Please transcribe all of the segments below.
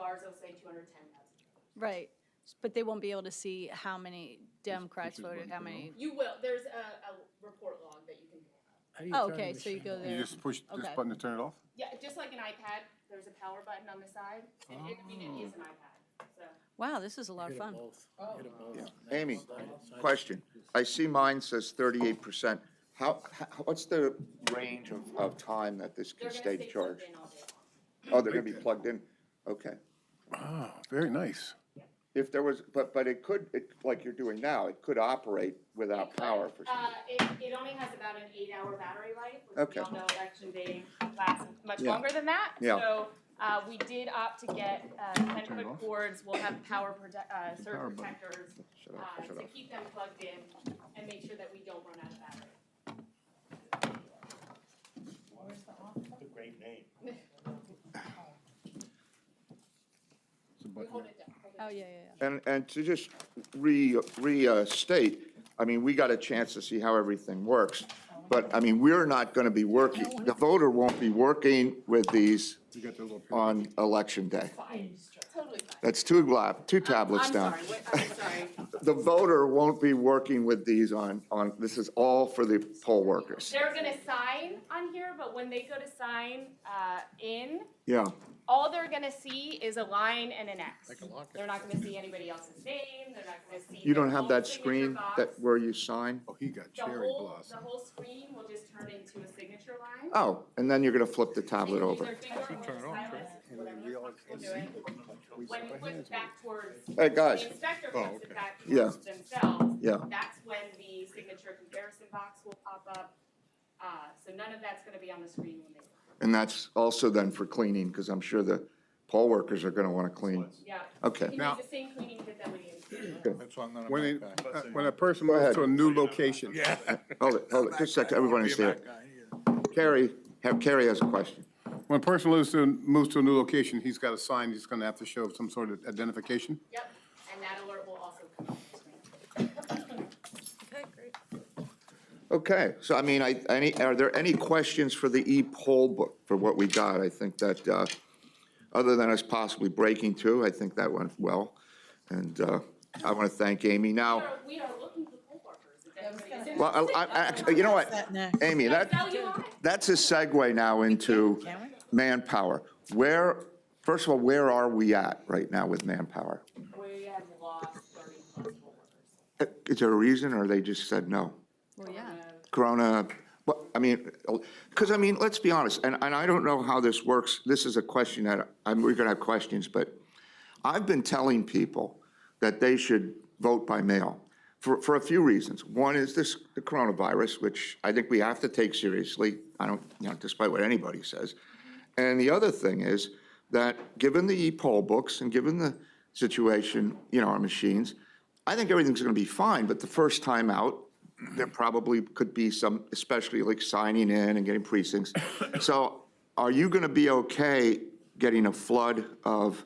ours, it'll say two hundred ten thousand. Right, but they won't be able to see how many Democrats which is voted, one how for many, You will, there's a, a report log that you can pull up. oh, okay, so you go You there. just push this Okay. button to turn it off? Yeah, just like an iPad, there's a power button on the side, and it, I mean, it is an iPad, so. Wow, this is a lot of fun. Oh. Amy, question. I see mine says thirty-eight percent. How, how- what's the range of, of time that this They're can gonna stay stay plugged charged? in all day long. Oh, they're gonna be plugged in? Okay. Ah, very nice. If there was, but, but it could, it, like you're doing now, it could operate without power for some. Uh, it, it only has about an eight-hour battery life, which Okay. we all know election day lasts much Yeah. longer than that. Yeah. So, uh, we did opt to get, uh, Turn it ten-foot off. cords, we'll have power prote- uh, The power surge button. protectors, Shut off, uh, shut to off. keep them plugged in and make sure that we don't run out of battery. A great name. It's We a button. hold it down, hold it down. Oh, yeah, yeah, yeah. And, and to just re, restate, I mean, we got a chance to see how everything works. But, I mean, we're not gonna be working, the voter won't be working with these You got the little pin. on election day. Totally fine. That's two glab, two tablets I'm down. sorry, what- I'm sorry. The voter won't be working with these on, on, this is all for the poll workers. They're gonna sign on here, but when they go to sign, uh, in, Yeah, all they're gonna see is a line and an X. They're not gonna see anybody else's name, they're not gonna see. you don't their have own that signature screen that, box. where you sign? Oh, he got The cherry whole, the blossom. whole screen will just turn into a signature line. Oh, and then you're gonna flip the They can tablet use over. their finger or turn it their off, stylus, right? whatever they're comfortable doing. We When clap you our put hands. it back towards, Hey, the guys, inspector Oh, puts okay. it back Yeah. towards themselves, yeah, that's when the signature comparison box will pop up. Uh, so none of that's gonna be on the screen when they sign. and that's also then for cleaning, because I'm sure the poll workers are gonna wanna clean. Yeah. Okay. You can Now- use the same cleaning kit that we use. When it, uh, when a person Go moves ahead. to a new location. Hold it, hold it, just a second, everyone understand. Carrie, have, Carrie has a question. When a person lives to, moves to a new location, he's got a sign, he's gonna have to show some sort of identification. Yep, and that alert will also come up. on the screen. Okay, so I mean, I, any, are there any questions for the e-poll book, for what we got? I think that, uh, other than us possibly breaking two, I think that went well. And, uh, I want to thank Amy. We Now, are, we are looking for poll workers. if anybody is well, interested. I, I, actually, you know what? Amy, that, Sell you on it. that's a segue now into manpower. Where, first of all, where are we at right now with manpower? We have lost thirty plus poll workers. Uh, Is there a reason, or they just said no? Well, yeah. Corona, well, I mean, because I mean, let's be honest, and, and I don't know how this works. This is a question that, I'm, we're gonna have questions, but I've been telling people that they should vote by mail for, for a few reasons. One is this, the coronavirus, which I think we have to take seriously. I don't, you know, despite what anybody says. And the other thing is that, given the e-poll books and given the situation, you know, our machines, I think everything's gonna be fine, but the first time out, there probably could be some, especially like signing in and getting precincts. So are you gonna be okay getting a flood of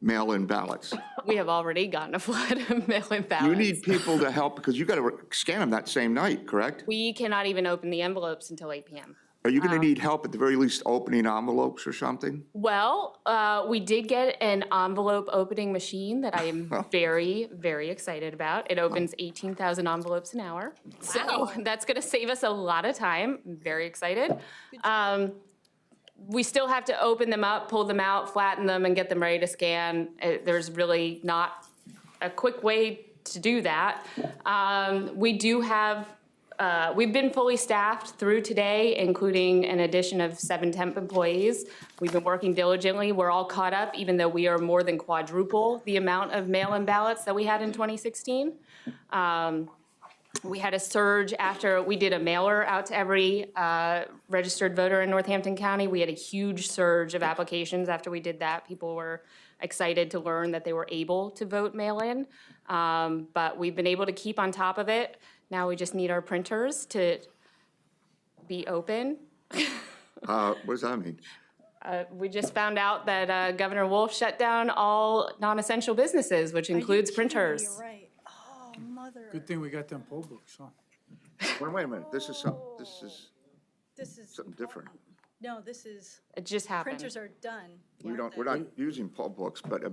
mail-in ballots? We have already gotten a flood of mail-in You ballots. need people to help, because you gotta scan them that same night, correct? We cannot even open the envelopes until 8 PM. Are you gonna need help at the very least opening envelopes or something? Well, uh, we did get an envelope opening machine that I am very, very excited about. It opens 18,000 envelopes an hour. So that's going to save us a lot of time. I'm Very excited. Um, We still have to open them up, pull them out, flatten them, and get them ready to scan. Uh, There's really not a quick way to do that. Um, We do have uh, We've been fully staffed through today, including an addition of seven temp employees. We've been working diligently. We're all caught up, even though we are more than quadruple the amount of mail-in ballots that we had in 2016. Um, We had a surge after, we did a mailer out to every uh, registered voter in Northampton County. We had a huge surge of applications after we did that. People were excited to learn that they were able to vote mail-in. Um, But we've been able to keep on top of it. Now we just need our printers to be open. Uh, what does that mean? Uh, We just found out that uh, Governor Wolf shut down all non-essential businesses, which includes printers. You're right. Oh, mother. Good thing we got them poll books, huh? Wait, wait a minute, this is some, this is, This is. Something different. important. No, this is, It just happened. printers are done. we don't, we're not using poll books, but I mean,